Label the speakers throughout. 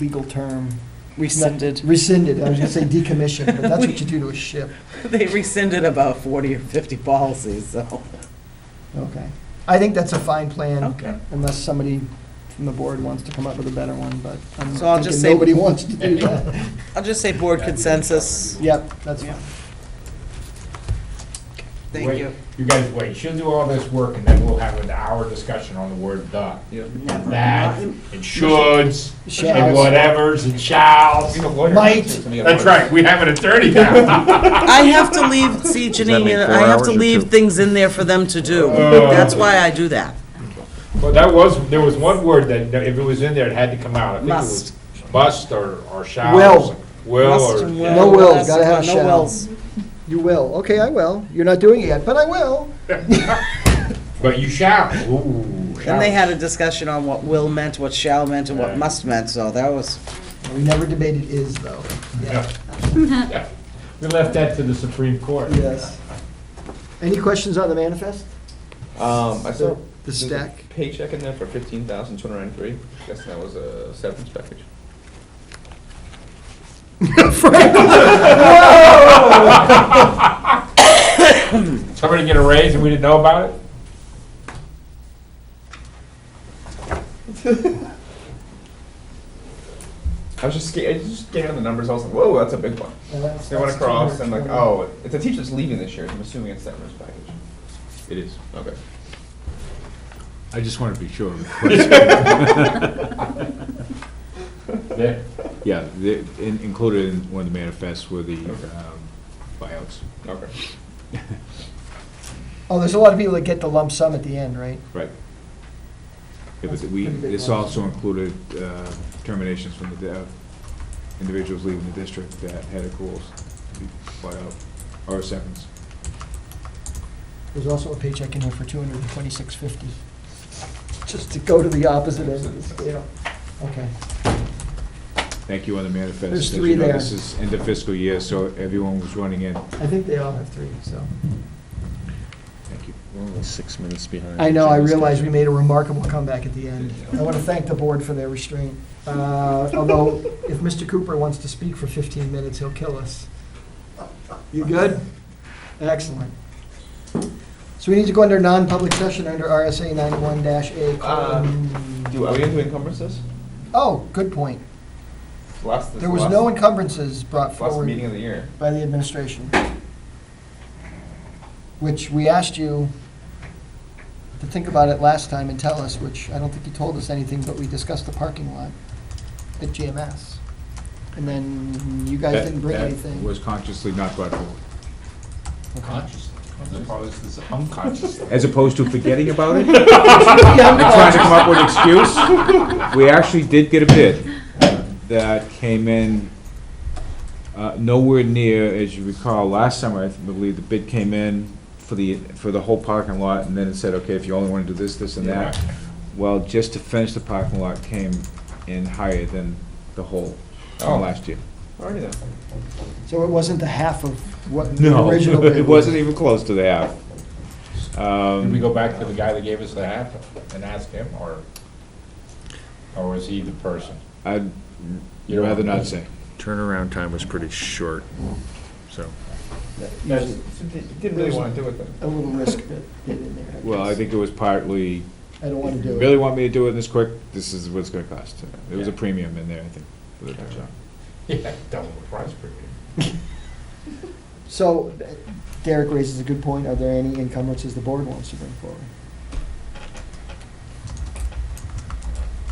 Speaker 1: legal term?
Speaker 2: rescinded.
Speaker 1: Rescinded, I was gonna say decommissioned, but that's what you do to a ship.
Speaker 2: They rescinded about 40 or 50 policies, so.
Speaker 1: Okay. I think that's a fine plan,
Speaker 2: Okay.
Speaker 1: unless somebody from the board wants to come up with a better one, but I'm
Speaker 2: So I'll
Speaker 1: thinking
Speaker 2: just say-
Speaker 1: nobody wants to do that.
Speaker 2: I'll just say board consensus.
Speaker 1: Yep, that's
Speaker 2: Yeah.
Speaker 1: fine.
Speaker 2: Thank
Speaker 3: Wait,
Speaker 2: you.
Speaker 3: You guys wait, she'll do all this work and then we'll have an hour discussion on the word the. And that, and shoulds, and
Speaker 1: Shalls.
Speaker 3: whatevers, and shalls.
Speaker 1: Might,
Speaker 3: That's right, we have an attorney now.
Speaker 2: I have to leave, see, Janine,
Speaker 4: make four
Speaker 2: I have
Speaker 4: hours
Speaker 2: to
Speaker 4: or two?
Speaker 2: leave things in there for them to do.
Speaker 3: Oh.
Speaker 2: That's why I do that.
Speaker 3: Well, that was, there was one word that, that if it was in there, it had to come out. I think it
Speaker 2: Must.
Speaker 3: was Must or, or shall.
Speaker 1: Will.
Speaker 3: or something. Will
Speaker 2: Must
Speaker 3: or.
Speaker 2: and
Speaker 3: yeah.
Speaker 1: No
Speaker 2: will,
Speaker 1: wills,
Speaker 2: that's
Speaker 1: gotta
Speaker 2: it,
Speaker 1: have
Speaker 2: no
Speaker 1: shall.
Speaker 2: wills.
Speaker 1: You will, okay, I will. You're not doing it yet, but I will.
Speaker 3: But you shall, ooh.
Speaker 2: And they
Speaker 3: shall.
Speaker 2: had a discussion on what will meant, what shall meant, and what
Speaker 3: Right.
Speaker 2: must meant, so that was,
Speaker 1: We never debated is, though.
Speaker 3: Yeah. Yeah. We left that to the Supreme Court.
Speaker 1: Yes. Any questions on the manifest?
Speaker 4: Um, I saw.
Speaker 1: The
Speaker 4: there's a
Speaker 1: stack?
Speaker 4: Paycheck in there for fifteen thousand two hundred and three, guessing that was a severance package.
Speaker 3: Somebody get a raise and we didn't know about it?
Speaker 4: I was just scared, I just scared of the numbers, I was like, whoa, that's a big one. They went across, and like, oh, it's a teacher's leaving this year, I'm assuming it's severance package. It is. Okay.
Speaker 3: I just want to be sure. Yeah.
Speaker 5: Yeah, the- in- included in one of the manifests were the
Speaker 4: Okay.
Speaker 5: um, buyouts.
Speaker 4: Okay.
Speaker 1: Oh, there's a lot of people that get the lump sum at the end, right?
Speaker 5: Right. Yeah, but
Speaker 1: That's a
Speaker 5: we,
Speaker 1: pretty big
Speaker 5: this
Speaker 1: one.
Speaker 5: also included uh, terminations from the, di- uh, individuals leaving the district that had accruals, to be bought out, or seconds.
Speaker 1: There's also a paycheck in here for two hundred and twenty-six fifty, just to go to the opposite end of the scale. Okay.
Speaker 5: Thank you on the manifest.
Speaker 1: There's
Speaker 5: As you
Speaker 1: three
Speaker 5: know,
Speaker 1: there.
Speaker 5: This is end of fiscal year, so everyone was running in.
Speaker 1: I think they all have three, so.
Speaker 5: Thank you.
Speaker 4: We're only six minutes behind.
Speaker 1: I know, I realize we made a remarkable comeback at the end. I want to thank the board for their restraint. Uh, Although, if Mr. Cooper wants to speak for 15 minutes, he'll kill us. You good? Excellent. So we need to go under non-public session under RSA 91-A.
Speaker 5: Uh,
Speaker 1: colon-
Speaker 4: Do, are we into encumbrances?
Speaker 1: Oh, good point.
Speaker 4: Last, this
Speaker 1: There was
Speaker 4: last-
Speaker 1: no encumbrances brought
Speaker 4: Last
Speaker 1: forward.
Speaker 4: meeting of the year.
Speaker 1: by the administration, which we asked you to think about it last time and tell us, which I don't think you told us anything, but we discussed the parking lot at GMS. And then you guys
Speaker 5: That-
Speaker 1: didn't bring
Speaker 5: that
Speaker 1: anything.
Speaker 5: was consciously not brought forward.
Speaker 3: Consciously, as opposed to unconsciously.
Speaker 5: As opposed to forgetting about it? And trying to come up with an excuse? We actually did get a bid that came in uh, nowhere near, as you recall, last summer, I believe, the bid came in for the, for the whole parking lot, and then it said, okay, if you only want to do this, this, and that. Well, just to finish the parking lot came in higher than the whole
Speaker 4: Oh.
Speaker 5: from last year.
Speaker 4: Already then.
Speaker 1: So it wasn't the half of what the
Speaker 5: No,
Speaker 1: original bid was.
Speaker 5: it wasn't even close to that. Um,
Speaker 3: Did we go back to the guy that gave us the hat and ask him, or, or was he the person?
Speaker 5: I'd
Speaker 3: You don't-
Speaker 5: rather not say.
Speaker 6: Turnaround time was pretty short, so.
Speaker 1: Usually
Speaker 4: So they Didn't really want to do it then.
Speaker 1: A little risk bid bid in there.
Speaker 5: Well, I
Speaker 1: guess.
Speaker 5: think it was partly,
Speaker 1: I don't want to
Speaker 5: you
Speaker 1: do it.
Speaker 5: really want me to do it this quick, this is what it's gonna cost. There was a premium in there, I think, for the
Speaker 4: Gotcha.
Speaker 3: Yeah, double the price per year.
Speaker 1: So uh, Derek raises a good point. Are there any encumbrances the board wants to bring forward?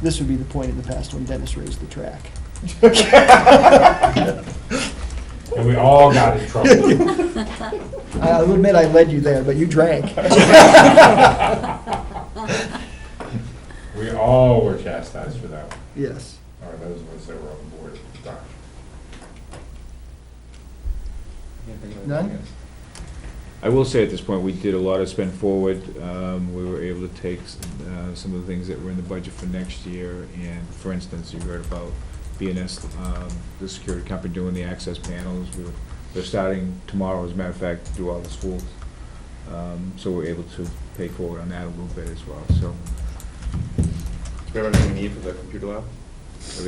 Speaker 1: This would be the point in the past when Dennis raised the track.
Speaker 3: And we all got in trouble.
Speaker 1: I- I'll admit I led you there, but you drank.
Speaker 3: We all were chastised for that,
Speaker 1: Yes.
Speaker 3: or those of us that were on the board at the time.
Speaker 1: None?
Speaker 5: I will say at this point, we did a lot of spend forward. Um, We were able to take uh, some of the things that were in the budget for next year, and for instance, you heard about BNS, um, the security company doing the access panels. We were- They're starting tomorrow, as a matter of fact, to do all the schools. Um, So we're able to pay forward on that a little bit as well, so.
Speaker 4: Do we have everything we need for the computer lab?
Speaker 5: everything